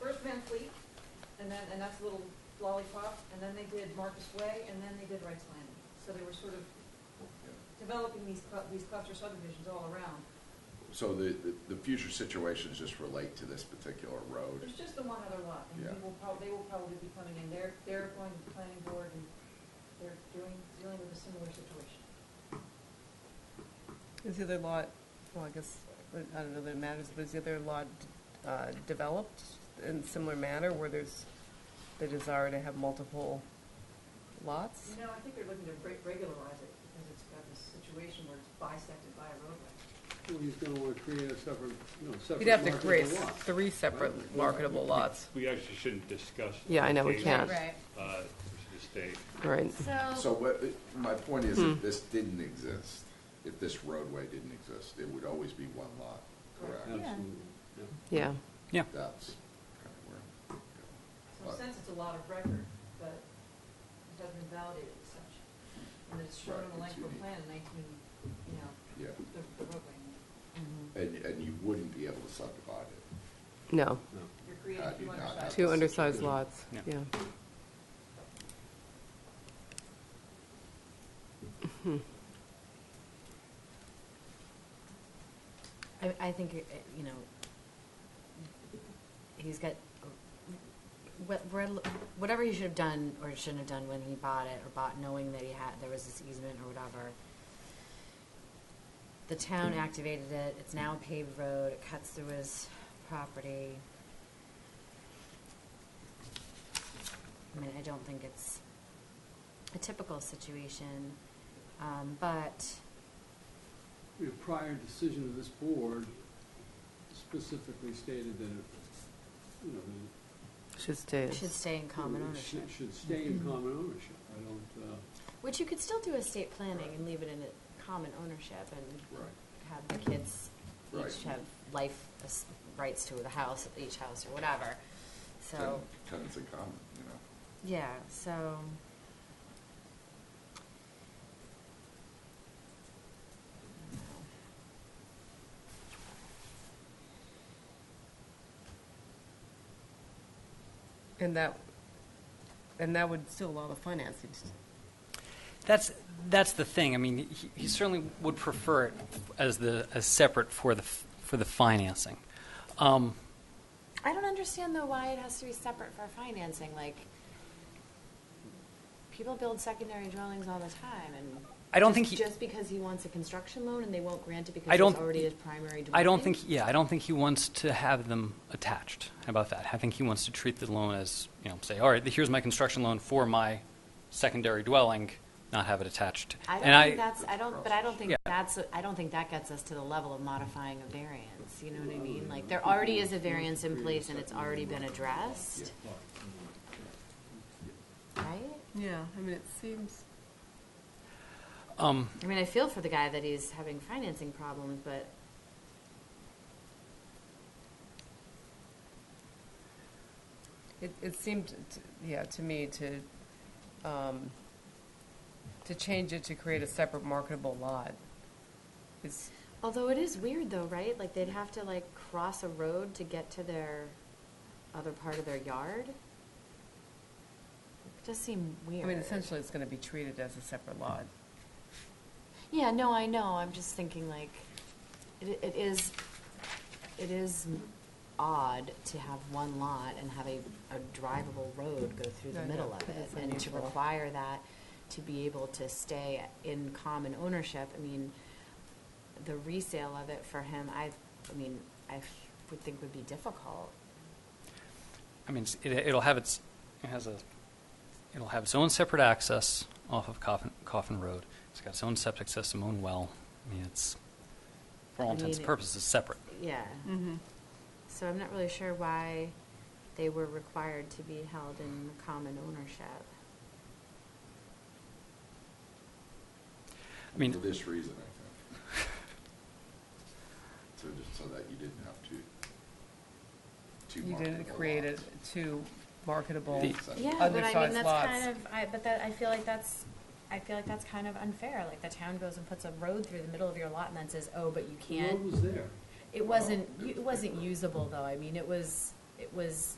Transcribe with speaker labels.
Speaker 1: Van Fleet, and then, and that's a little lollipop, and then they did Marcus Way, and then they did Wright's Landing. So they were sort of developing these, clu- these cluster subdivisions all around.
Speaker 2: So the, the- the future situations just relate to this particular road?
Speaker 1: There's just the one other lot, and
Speaker 2: Yeah.
Speaker 1: we will prob, they will probably be coming in, they're, they're going to the planning board and they're doing, dealing with a similar situation.
Speaker 3: Is the other lot, well, I guess, I don't know that it matters, but is the other lot uh, developed in similar manner where there's the desire to have multiple lots?
Speaker 1: You know, I think they're looking to re- regularize it, because it's got this situation where it's bisected by a roadway.
Speaker 4: Well, he's gonna wanna create a separate, you know, separate
Speaker 3: You'd have to
Speaker 4: marketable
Speaker 3: create
Speaker 4: lot.
Speaker 3: three separate marketable lots.
Speaker 5: We actually shouldn't discuss.
Speaker 3: Yeah, I know, we
Speaker 5: locations,
Speaker 3: can't.
Speaker 6: Right.
Speaker 5: Uh, we should stay.
Speaker 3: Right.
Speaker 2: So what, my point is,
Speaker 3: Hmm.
Speaker 2: if this didn't exist, if this roadway didn't exist, it would always be one lot, correct?
Speaker 4: Absolutely, yeah.
Speaker 3: Yeah.
Speaker 7: Yeah.
Speaker 2: That's kind of where I'm going.
Speaker 1: So in a sense, it's a lot of record, but it hasn't been validated as such. And it's shown on the
Speaker 2: Right, it's
Speaker 1: Langford
Speaker 2: unique.
Speaker 1: plan in nineteen, you know,
Speaker 2: Yeah.
Speaker 1: the the roadway.
Speaker 2: And, and you wouldn't be able to subdivide it.
Speaker 3: No.
Speaker 4: No.
Speaker 1: You're
Speaker 2: How
Speaker 1: creating
Speaker 2: do you
Speaker 1: two
Speaker 2: not
Speaker 1: undersized.
Speaker 2: have
Speaker 3: Two undersized lots,
Speaker 7: Yeah.
Speaker 3: yeah. Hmm.
Speaker 6: I, I think, uh, you know, he's got, what, what- whatever he should have done or shouldn't have done when he bought it, or bought knowing that he had, there was this easement or whatever. The
Speaker 4: Hmm.
Speaker 6: town activated it, it's now a paved road, it cuts through his property. I mean, I don't think it's a typical situation, um, but,
Speaker 4: The prior decision of this board specifically stated that, it, you know, that
Speaker 3: Should stay.
Speaker 6: It
Speaker 3: as-
Speaker 6: Should stay in
Speaker 4: it
Speaker 6: common
Speaker 4: should-
Speaker 6: ownership, Mm-hmm.
Speaker 4: Should stay in common ownership. I don't, uh,
Speaker 6: which you could still do estate planning and leave it in a common ownership and
Speaker 2: Right.
Speaker 6: have the kids
Speaker 2: Right.
Speaker 6: each have life as- rights to the house, each house or whatever. So,
Speaker 2: Ten- Tenants in common, you know?
Speaker 6: yeah, so.
Speaker 3: And that, and that would still allow the financing. to-
Speaker 7: That's, that's the thing. I mean, he- he certainly would prefer it as the, as separate for the, f- for the financing. Um,
Speaker 6: I don't understand though why it has to be separate for financing, like, people build secondary dwellings all the time and.
Speaker 7: I don't
Speaker 6: just-
Speaker 7: think he-
Speaker 6: Just because he wants a construction loan and they won't grant it
Speaker 7: I
Speaker 6: because there's
Speaker 7: don't-
Speaker 6: already a primary dwelling?
Speaker 7: I don't think, yeah, I don't think he wants to have them attached. How about that? I think he wants to treat the loan as, you know, say, all right, here's my construction loan for my secondary dwelling, not have it attached.
Speaker 6: I
Speaker 7: And
Speaker 6: don't think that's, I don't, but I don't think
Speaker 7: Yeah.
Speaker 6: that's, I don't think that gets us to the level of modifying a variance, you know what I mean? Like, there already is a variance in place and it's already been addressed, right?
Speaker 3: Yeah, I mean, it seems.
Speaker 7: Um,
Speaker 6: I mean, I feel for the guy that he's having financing problems, but
Speaker 3: It, it seemed, to- yeah, to me to, um, to change it to create a separate marketable lot is,
Speaker 6: Although it is weird though, right? Like they'd have to like cross a road to get to their other part of their yard. It does seem
Speaker 3: I
Speaker 6: weird.
Speaker 3: mean, essentially it's going to be treated as a separate lot.
Speaker 6: Yeah, no, I know. I'm just thinking like, it, it is, it is odd to have one lot and have a, a drivable road go through
Speaker 3: I
Speaker 6: the
Speaker 3: know,
Speaker 6: middle of
Speaker 3: but
Speaker 6: it.
Speaker 3: it's
Speaker 6: And to
Speaker 3: unusual.
Speaker 6: require that to be able to stay in common ownership, I mean, the resale of it for him, I, I mean, I would think would be difficult.
Speaker 7: I mean, it's- it, it'll have its, it has a, it'll have its own separate access off of Coffin, Coffin Road. It's got its own septic system, own well. I mean, it's, for all
Speaker 6: I mean,
Speaker 7: intents and
Speaker 6: it-
Speaker 7: purposes, it's separate.
Speaker 6: Yeah.
Speaker 3: Mm-hmm.
Speaker 6: So I'm not really sure why they were required to be held in common ownership.
Speaker 7: I mean-
Speaker 2: For this reason, I think. So just so that you didn't have to. two
Speaker 3: You didn't
Speaker 2: marketable
Speaker 3: create it
Speaker 2: lots.
Speaker 3: two marketable.
Speaker 7: The-
Speaker 6: Yeah, but I mean,
Speaker 3: Undersized
Speaker 6: that's
Speaker 3: lots.
Speaker 6: kind of, I, but that, I feel like that's, I feel like that's kind of unfair. Like the town goes and puts a road through the middle of your lot and then says, oh, but you
Speaker 4: the road
Speaker 6: can't.
Speaker 4: was there.
Speaker 6: It wasn't,
Speaker 2: Well, it
Speaker 6: it
Speaker 2: was
Speaker 6: wasn't
Speaker 2: paper.
Speaker 6: usable though. I mean, it was, it was